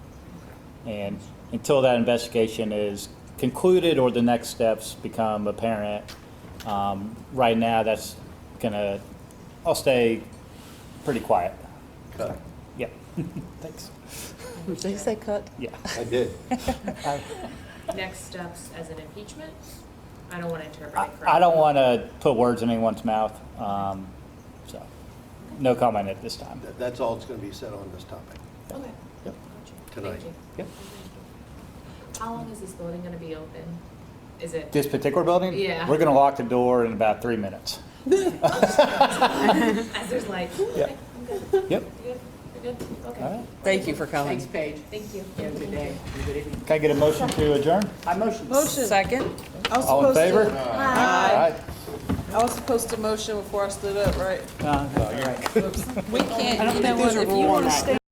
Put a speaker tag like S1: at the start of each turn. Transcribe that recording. S1: And until that investigation is concluded or the next steps become apparent, um, right now, that's gonna, I'll stay pretty quiet. But, yeah, thanks.
S2: Did you say cut?
S1: Yeah.
S3: I did.
S4: Next steps as an impeachment? I don't want to interpret it
S1: I,
S4: correctly.
S1: I don't want to put words in anyone's mouth, um, so, no comment at this time.
S3: That- That's all that's going to be said on this topic.
S4: Okay.
S1: Yep.
S4: Gotcha.
S3: Tonight.
S4: Thank you.
S1: Yep.
S4: How long is this building going to be open? Is it?
S1: This particular building?
S4: Yeah.
S1: We're gonna lock the door in about three minutes.
S4: As there's like,
S1: Yeah.
S4: okay, I'm good, you're
S1: Yep,
S4: good, you're good,
S1: all right.
S4: okay.
S2: Thank you for coming.
S5: Thanks, Paige.
S4: Thank you.
S5: Have a good day. Have a good evening.
S1: Can I get a motion to adjourn?
S5: I motion.
S2: Second?
S6: I was
S1: All in
S6: supposed to-
S1: favor? All
S6: Aye.
S1: right.
S6: I was supposed to motion before I stood up, right?
S1: Uh,
S2: We can't, you know what, if you want to stay